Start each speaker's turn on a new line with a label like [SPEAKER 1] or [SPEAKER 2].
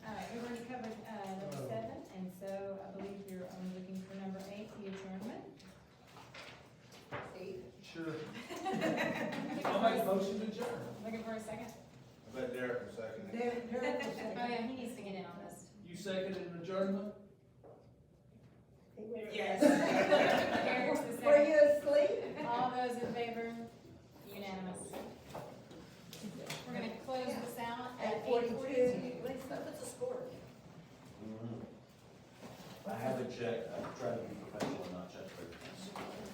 [SPEAKER 1] uh,
[SPEAKER 2] motion to adjourn.
[SPEAKER 1] Looking for a second?
[SPEAKER 3] I bet Derek was seconding.
[SPEAKER 4] Derek, Derek was
[SPEAKER 1] Oh,
[SPEAKER 4] second.
[SPEAKER 1] yeah, he needs to get in on this.
[SPEAKER 2] You seconded adjournment?
[SPEAKER 4] Yes.
[SPEAKER 1] Eric's the
[SPEAKER 4] Were
[SPEAKER 1] second.
[SPEAKER 4] you asleep?
[SPEAKER 1] All those in favor? Unanimous. We're gonna close this out at
[SPEAKER 4] At
[SPEAKER 1] eight
[SPEAKER 4] forty-two?
[SPEAKER 1] forty-two.
[SPEAKER 4] What's the score?
[SPEAKER 5] I have a check, I try to be professional.